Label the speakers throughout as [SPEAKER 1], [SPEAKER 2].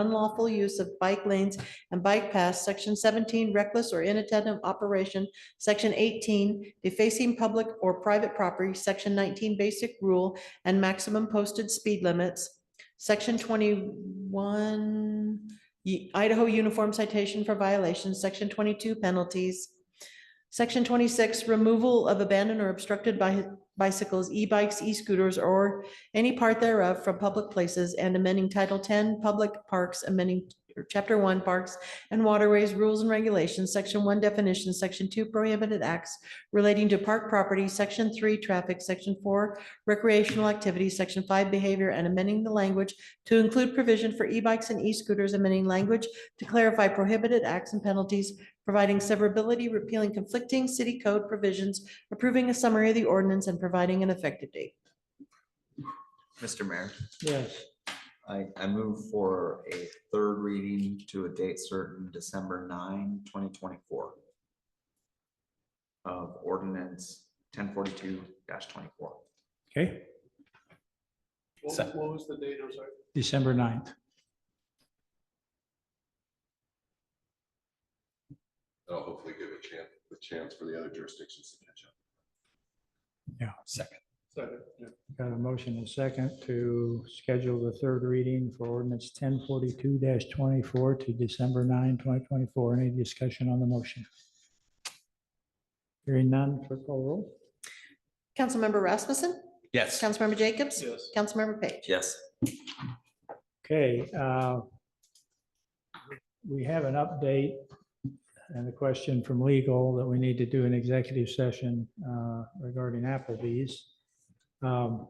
[SPEAKER 1] unlawful use of bike lanes and bike paths, section seventeen, reckless or inattentive operation, section eighteen, defacing public or private property, section nineteen, basic rule and maximum posted speed limits, section twenty-one, y- Idaho uniform citation for violations, section twenty-two, penalties, section twenty-six, removal of abandoned or obstructed by bicycles, e-bikes, e-scooters, or any part thereof from public places and amending Title ten, Public Parks, amending Chapter one, Parks and Waterways Rules and Regulations, Section one, Definitions, Section two, Prohibited Acts relating to park property, Section three, Traffic, Section four, Recreational Activities, Section five, Behavior, and amending the language to include provision for e-bikes and e-scooters, amending language to clarify prohibited acts and penalties, providing severability, repealing conflicting city code provisions, approving a summary of the ordinance, and providing an effective date.
[SPEAKER 2] Mr. Mayor,
[SPEAKER 3] Yes,
[SPEAKER 2] I, I move for a third reading to a date certain December 9, 2024, of ordinance ten forty-two twenty-four.
[SPEAKER 3] okay,
[SPEAKER 4] What
[SPEAKER 3] So-
[SPEAKER 4] was- what was the date, I'm sorry?
[SPEAKER 3] December 9th.
[SPEAKER 5] That'll hopefully give a chance, a chance for the other jurisdictions to catch up.
[SPEAKER 3] Yeah, second.
[SPEAKER 4] Second, yeah.
[SPEAKER 3] Got a motion and second to schedule the third reading for ordinance ten forty-two twenty-four to December 9, 2024. Any discussion on the motion? Hearing none, clerk call roll.
[SPEAKER 1] Councilmember Rasmussen?
[SPEAKER 6] Yes.
[SPEAKER 1] Councilmember Jacobs?
[SPEAKER 4] Yes.
[SPEAKER 1] Councilmember Page?
[SPEAKER 2] Yes.
[SPEAKER 3] Okay, uh, we have an update and a question from legal that we need to do an executive session uh, regarding Applebee's. Um,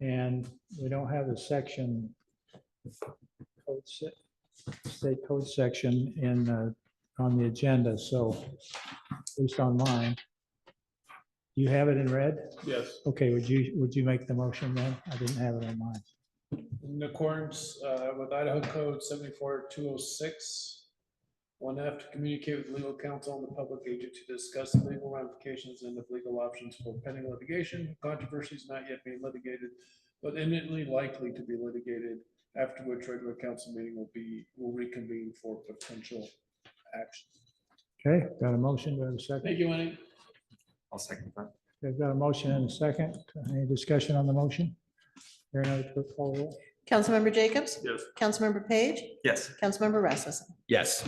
[SPEAKER 3] And we don't have a section, code se- state code section in, uh, on the agenda, so at least online. You have it in red?
[SPEAKER 4] Yes.
[SPEAKER 3] Okay, would you, would you make the motion then? I didn't have it on mine.
[SPEAKER 4] In accordance uh, with Idaho Code seventy-four two oh six, one F to communicate with legal counsel and the public agent to discuss the legal ramifications and the legal options for pending litigation, controversies not yet being litigated, but imminently likely to be litigated, after which regular council meeting will be, will reconvene for potential action.
[SPEAKER 3] Okay, got a motion, do I have a second?
[SPEAKER 4] Thank you, Lenny.
[SPEAKER 2] I'll second that.
[SPEAKER 3] They've got a motion and a second. Any discussion on the motion? Here another quick poll roll.
[SPEAKER 1] Councilmember Jacobs?
[SPEAKER 4] Yes.
[SPEAKER 1] Councilmember Page?
[SPEAKER 2] Yes.
[SPEAKER 1] Councilmember Rasmussen?
[SPEAKER 6] Yes.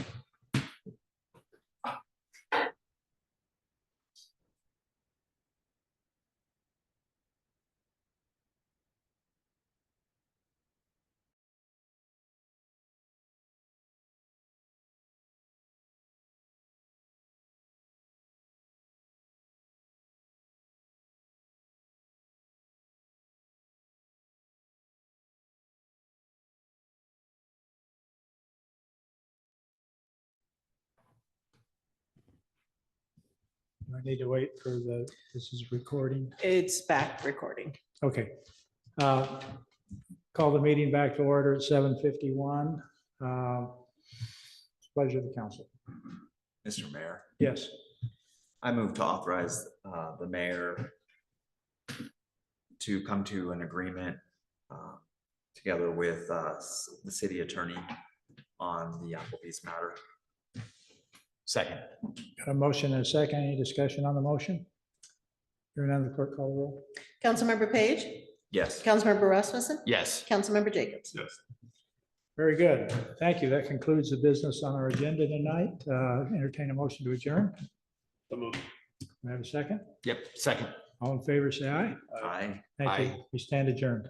[SPEAKER 3] Do I need to wait for the, this is recording.
[SPEAKER 1] It's back recording.
[SPEAKER 3] Okay. Uh, Call the meeting back to order at seven fifty-one. Uh, Pleasure of the council.
[SPEAKER 2] Mr. Mayor,
[SPEAKER 3] Yes.
[SPEAKER 2] I move to authorize, uh, the mayor to come to an agreement, uh, together with, uh, s- the city attorney on the Applebee's matter.
[SPEAKER 6] Second.
[SPEAKER 3] Got a motion and a second. Any discussion on the motion? Here another quick poll roll.
[SPEAKER 1] Councilmember Page?
[SPEAKER 2] Yes.
[SPEAKER 1] Councilmember Rasmussen?
[SPEAKER 6] Yes.
[SPEAKER 1] Councilmember Jacobs?
[SPEAKER 4] Yes.
[SPEAKER 3] Very good. Thank you. That concludes the business on our agenda tonight. Uh, Entertain a motion to adjourn.
[SPEAKER 4] So moved.
[SPEAKER 3] Do I have a second?
[SPEAKER 6] Yep. Second.
[SPEAKER 3] All in favor, say aye.
[SPEAKER 2] Aye.
[SPEAKER 3] Thank you. We stand adjourned.